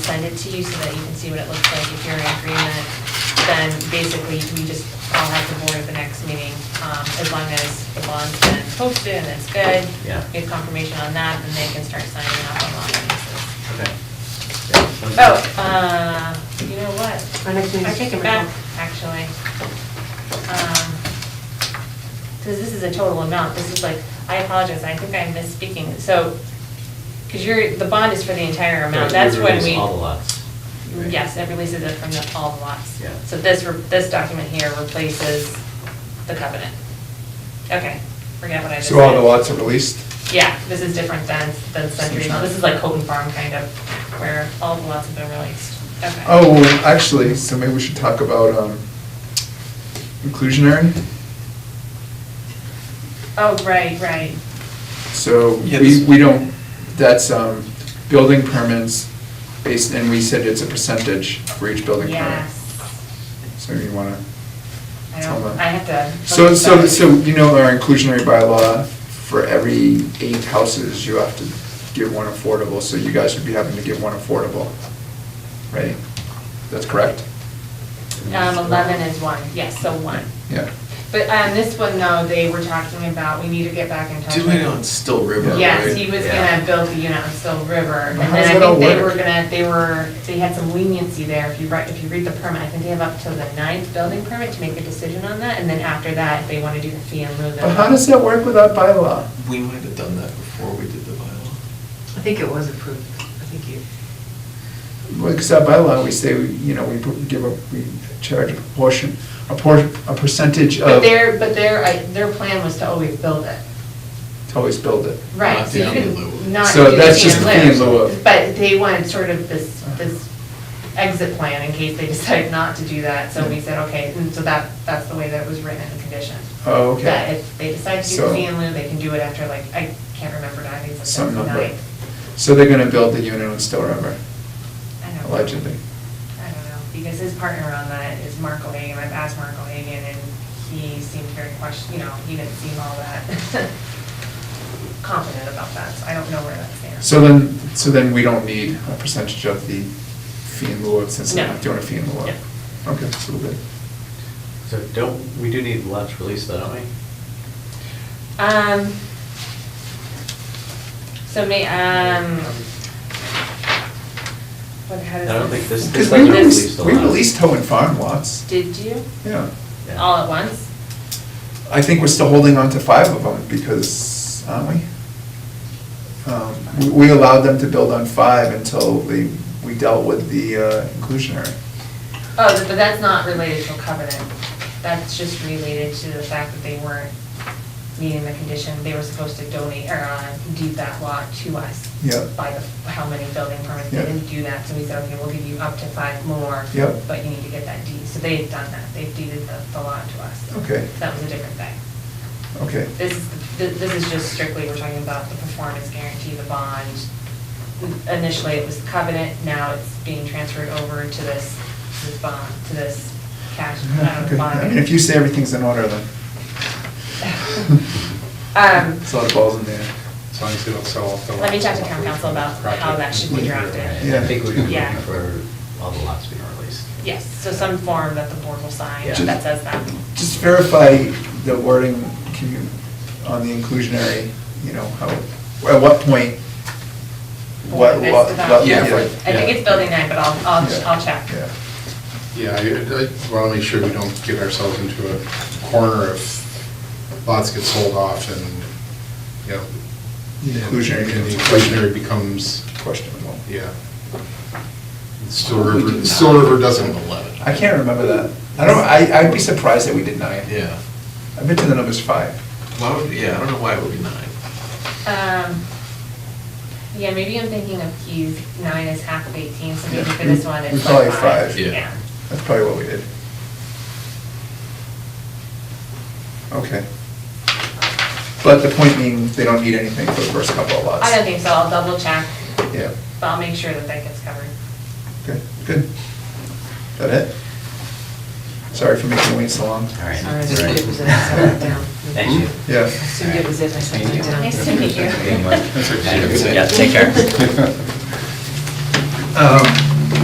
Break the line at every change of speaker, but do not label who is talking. send it to you so that you can see what it looks like. If you're in agreement, then basically we just, I'll have the board at the next meeting, um, as long as the bond's been posted and it's good.
Yeah.
Get confirmation on that, and they can start signing up on lot releases.
Okay.
Oh, uh, you know what?
Our next meeting
I
is
take it
September
back, actually. Because this is a total amount, this is like, I apologize, I think I'm misspeaking, so, because you're, the bond is for the entire amount, that's when we. Mm,
All the lots. right?
Yes, it releases it from the, all the lots.
Yeah.
So this, re- this document here replaces the covenant. Okay, forget what I just said.
So all the lots are released?
Yeah, this is different than, than Century Mill, this is like Colton Farm kind of, where all the lots have been released. Okay.
Oh, well, actually, so maybe we should talk about um, inclusionary.
Oh, right, right.
So we,
Yes.
we don't, that's um, building permits based, and we said it's a percentage for each building permit.
Yes.
So you want to.
I
Tell
don't,
them.
I have to.
So, so, so you know our inclusionary bylaw, for every eight houses, you have to give one affordable, so you guys would be having to give one affordable, right? That's correct?
Um, eleven is one, yes, so one.
Yeah.
But, um, this one though, they were talking about, we need to get back in touch.
Do
with-
it on Still River,
Yes,
right?
he was
Yeah.
gonna build the unit on Still River, and
But how does
then I
that all
think they were
work?
gonna, they were, they had some leniency there, if you write, if you read the permit, I think they have up till the ninth building permit to make a decision on that, and then after that, they wanna do the fee and lieu. then-
But how does that work without bylaw?
We might have done that before we did the bylaw.
I think it was approved. I think you,
Well, because our bylaw, we say, we, you know, we put- give a, we charge a proportion, a por, a percentage
But
of,
their, but their, I- their plan was to always build it.
to always build it.
Right,
Not
so you
the fee in lieu
can
of.
not do
So
the
that's
fee
just
in
the fee in lieu of.
But they wanted sort of this, this exit plan in case they decide not to do that, so we said, okay, and so that, that's the way that it was written in the condition.
Oh,
That
okay.
if they decide to do
So-
the fee in lieu, they can do it after like, I can't remember now, I think it's like
Some
the
number.
ninth.
So they're gonna build the unit on Still River,
I don't know.
allegedly.
I don't know, because his partner on that is Mark O'Hagan, I've asked Mark O'Hagan, and he seemed very question, you know, he didn't seem all that confident about that, so I don't know where that's there.
So then, so then we don't need a percentage of the fee in lieu of, since we're not
No.
doing a fee in lieu of. Okay, so we're good.
So don't, we do need lots released though, don't we?
Um, so may, um, what, how does
I don't think this-
Because
It's
we
like released
released,
the
we
lot.
released Hohen Farm lots,
Did you?
yeah.
Yeah.
All at once?
I think we're still holding on to five of them because, aren't we? Um, we- We allowed them to build on five until they, we dealt with the uh, inclusionary.
Oh, th- but that's not related to a covenant. That's just related to the fact that they weren't meeting the condition. They were supposed to donate, or uh, deed that lot to us.
Yep.
By the, how many building permits. They
Yep.
didn't do that, so we said, okay, we'll give you up to five more.
Yep.
But you need to get that deed. So they've done that. They've deeded the, the lot to us.
Okay.
That was a different thing.
Okay.
This, th- this is just strictly, we're talking about the performance guarantee, the bond. Initially, it was the covenant, now it's being transferred over to this, this bond, to this cash,
Yeah,
uh,
okay.
bond.
I mean, if you say everything's in order, then.
Um,
There's a lot of balls in there.
As long as they don't sell off the.
Let me talk
lots
to town
before
council
the
about
project
how that should be
completes.
drafted.
Yeah.
I think we would be
Yeah.
looking for all the lots being released.
Yes, so some form that the board will sign
Yeah.
that says that.
Just verify the wording can you- on the inclusionary, you know, how, at what point, what,
This
what.
about-
what-
Yeah,
I
right.
think it's building nine, but I'll, I'll,
Yeah.
I'll check.
Yeah.
Yeah, I, I want to make sure we don't get ourselves into a corner if lots get sold off and, you know.
The inclusionary
And the
becomes-
inclusionary becomes,
Questionable.
yeah. Still River, Still River doesn't.
I can't remember that. I don't, I, I'd be surprised that we did nine.
Yeah.
I bet you the number's five.
Why would, yeah, I don't know why it would be nine.
Um, yeah, maybe I'm thinking of keys, nine is half of eighteen, so maybe
Yeah.
for this one,
We-
it's
we call
like
it
five.
five.
Yeah.
Yeah.
That's probably what we did. Okay. But the point being, they don't need anything for the first couple of lots.
I don't think so, I'll double check,
Yeah,
but I'll make sure that that gets covered.
okay, good. That it? Sorry for making you wait so long.
All right.
Sorry, I
All
just
right.
put it was in, I set it down.
Thank you.
Yeah.
Assumed it was it, and I set
Thank
it
you.
down.
Nice to meet you.
Thank you.
That's okay.
Yeah, take care.
Um,